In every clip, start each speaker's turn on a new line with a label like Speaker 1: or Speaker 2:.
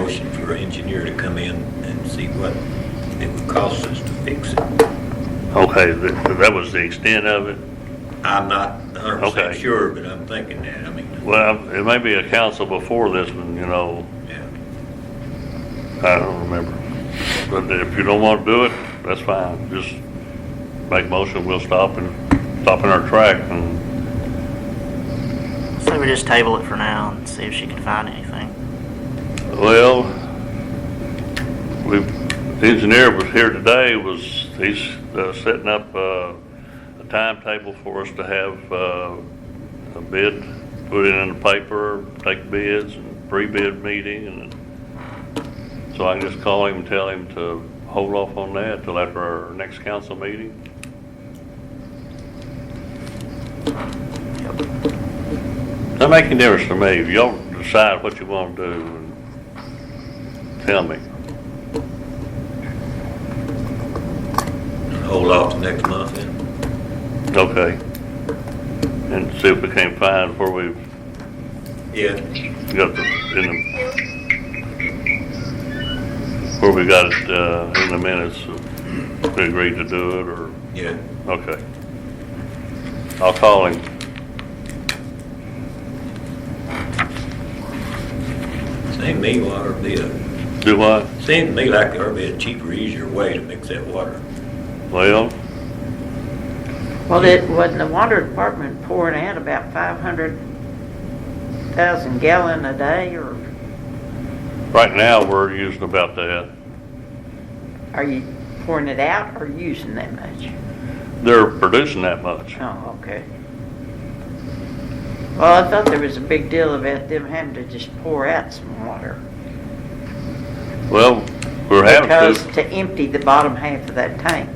Speaker 1: motion for our engineer to come in and see what it would cost us to fix it.
Speaker 2: Okay, that, that was the extent of it.
Speaker 1: I'm not hundred percent
Speaker 2: Okay.
Speaker 1: sure, but I'm thinking that, I mean,
Speaker 2: Well, it may be a council before this one, you know,
Speaker 1: yeah.
Speaker 2: I don't remember. But if you don't want to do it, that's fine. Just make motion, we'll stop and, stop in our track and,
Speaker 3: So we just table it for now and see if she can find anything.
Speaker 2: well, we, the engineer was here today, was, he's uh, setting up uh, a timetable for us to have uh, a bid, put it in the paper, take bids, and pre-bid meeting, and so I can just call him and tell him to hold off on that till after our next council meeting. Doesn't make any difference to me. If y'all decide what you want to do, and tell me.
Speaker 1: Hold off till next month then.
Speaker 2: Okay. And see if we can't find where we've
Speaker 1: Yeah,
Speaker 2: got the, in the, where we got it, uh, in the minutes, if we agreed to do it, or,
Speaker 1: yeah.
Speaker 2: okay. I'll call him.
Speaker 1: Seemed to me water would be a,
Speaker 2: Do what?
Speaker 1: seemed to me like there'd be a cheaper, easier way to mix that water.
Speaker 2: Well,
Speaker 4: Well, it, when the water department pouring out about five hundred thousand gallon a day, or
Speaker 2: right now, we're using about that.
Speaker 4: are you pouring it out or using that much?
Speaker 2: They're producing that much.
Speaker 4: Oh, okay. Well, I thought there was a big deal about them having to just pour out some water.
Speaker 2: Well, we're having to.
Speaker 4: Because to empty the bottom half of that tank.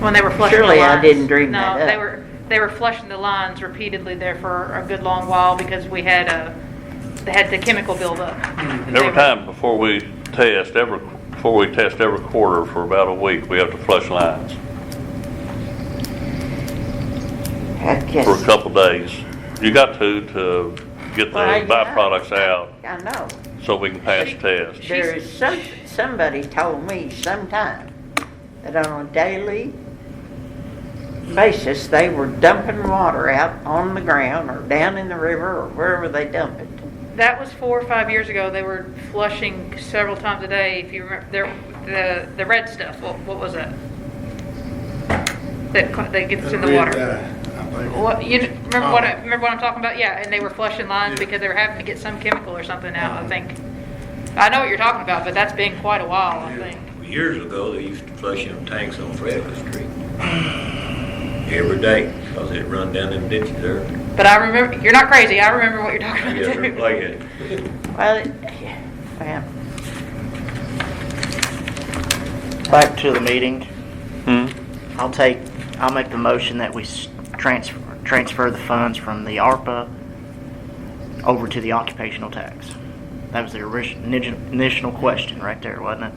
Speaker 5: When they were flushing the lines.
Speaker 4: Surely I didn't dream that
Speaker 5: No, they
Speaker 4: up.
Speaker 5: were, they were flushing the lines repeatedly there for a good long while because we had a, they had the chemical buildup. They
Speaker 2: Every
Speaker 5: were-
Speaker 2: time before we test, every, before we test every quarter for about a week, we have to flush lines
Speaker 4: I
Speaker 2: for a
Speaker 4: guess.
Speaker 2: couple days. You got to, to get the
Speaker 4: Well, I-
Speaker 2: byproducts out
Speaker 4: I know.
Speaker 2: so we can pass
Speaker 5: She-
Speaker 2: test.
Speaker 4: There is some, somebody told me sometime that on a daily basis, they were dumping water out on the ground or down in the river or wherever they dump it.
Speaker 5: That was four or five years ago. They were flushing several times a day. If you remember, there- the, the red stuff, what, what was that? That, co- that gets in the water. What, you remember what, I-
Speaker 6: uh, Oh.
Speaker 5: remember what I'm talking about? Yeah, and they were flushing lines
Speaker 6: Yeah. Mm-hmm.
Speaker 5: because they were having to get some chemical or something out, I think. I know what you're talking about, but that's been quite a while, I think.
Speaker 1: Years ago, they used to flush them tanks on Frederick Street. Every day, 'cause it run down them ditches there.
Speaker 5: But I remember, you're not crazy. I remember what you're talking about.
Speaker 1: Yeah,
Speaker 5: too.
Speaker 1: they're like it.
Speaker 4: Well, it- well,
Speaker 3: Back to the meeting.
Speaker 2: Hmm?
Speaker 3: I'll take, I'll make the motion that we s- transfer, transfer the funds from the ARPA over to the occupational tax. That was the orig- nigi- initial question right there, wasn't it?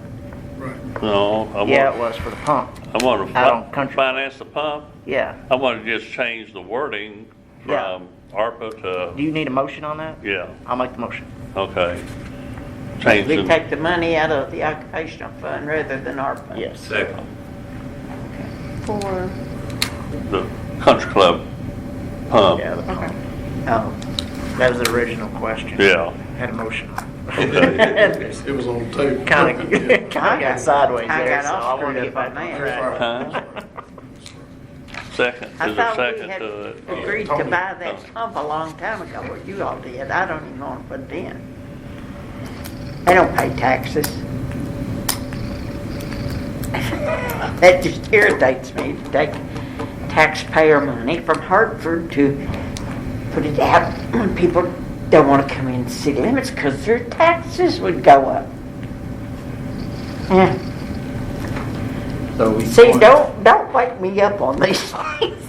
Speaker 2: No, I
Speaker 3: Yeah, it
Speaker 2: want,
Speaker 3: was for the pump.
Speaker 2: I want
Speaker 3: Out on
Speaker 2: to
Speaker 3: country.
Speaker 2: finance the pump.
Speaker 3: Yeah.
Speaker 2: I want to just change the wording
Speaker 3: Yeah.
Speaker 2: from ARPA
Speaker 3: Do
Speaker 2: to,
Speaker 3: you need a motion on that?
Speaker 2: yeah,
Speaker 3: I'll make the motion.
Speaker 2: okay. Change
Speaker 4: We
Speaker 2: the,
Speaker 4: take the money out of the occupational fund rather than ARPA.
Speaker 3: Yes.
Speaker 1: Second.
Speaker 5: For.
Speaker 2: the country club pump.
Speaker 3: Yeah, the pump. Um,
Speaker 4: Oh,
Speaker 3: That was the original question.
Speaker 2: Yeah.
Speaker 3: Had a motion.
Speaker 2: Okay.
Speaker 6: It was on the table.
Speaker 3: Kind of, kind of got sideways
Speaker 4: I
Speaker 3: there,
Speaker 4: got
Speaker 3: so
Speaker 4: all
Speaker 3: I wanted
Speaker 4: screwed
Speaker 3: to
Speaker 4: up on
Speaker 3: find
Speaker 4: that.
Speaker 2: Huh? Second,
Speaker 4: I
Speaker 2: is there a
Speaker 4: thought we
Speaker 2: second
Speaker 4: had
Speaker 2: to it?
Speaker 4: agreed to buy that pump a long time ago, or you all did. I don't even want to put it in. They don't pay taxes. That just irritates me to take taxpayer money from Hartford to put it out when people don't want to come in city limits because their taxes would go up. Yeah.
Speaker 7: So we.
Speaker 4: See, don't, don't wake me up on these things.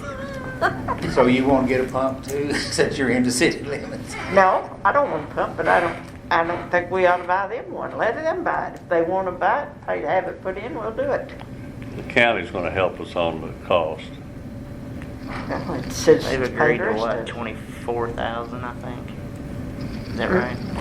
Speaker 7: So you won't get a pump too, since you're into city limits?
Speaker 4: No, I don't want to pump it, I don't, I don't think we ought to buy them one, let them buy it, if they want to buy it, pay to have it put in, we'll do it.
Speaker 2: The county's gonna help us on the cost.
Speaker 4: Well, It's citizens'
Speaker 3: They've
Speaker 4: pay
Speaker 3: agreed
Speaker 4: the
Speaker 3: to
Speaker 4: rest of
Speaker 3: what,
Speaker 4: it.
Speaker 3: twenty-four thousand, I think? Is that right?